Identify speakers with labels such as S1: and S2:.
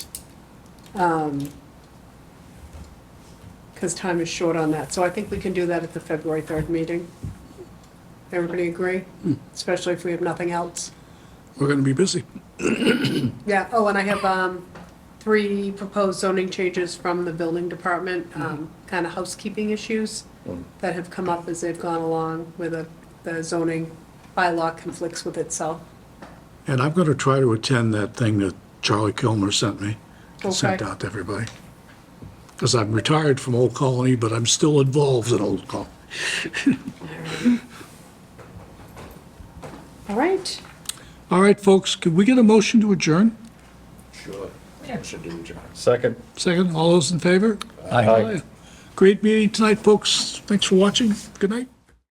S1: because time is short on that. So I think we can do that at the February 3rd meeting. Everybody agree? Especially if we have nothing else.
S2: We're going to be busy.
S1: Yeah, oh, and I have um, three proposed zoning changes from the building department, kind of housekeeping issues that have come up as they've gone along with the- the zoning bylaw conflicts with itself.
S2: And I'm going to try to attend that thing that Charlie Kilmer sent me, sent
S1: Okay.
S2: out to everybody. Because I'm retired from Old Colony, but I'm still involved in Old Colony.
S1: All right,
S2: All right, folks, could we get a motion to adjourn?
S3: Sure. Motion to adjourn. Second.
S2: Second, all those in favor?
S3: Aye.
S2: Great meeting tonight, folks. Thanks for watching. Good night.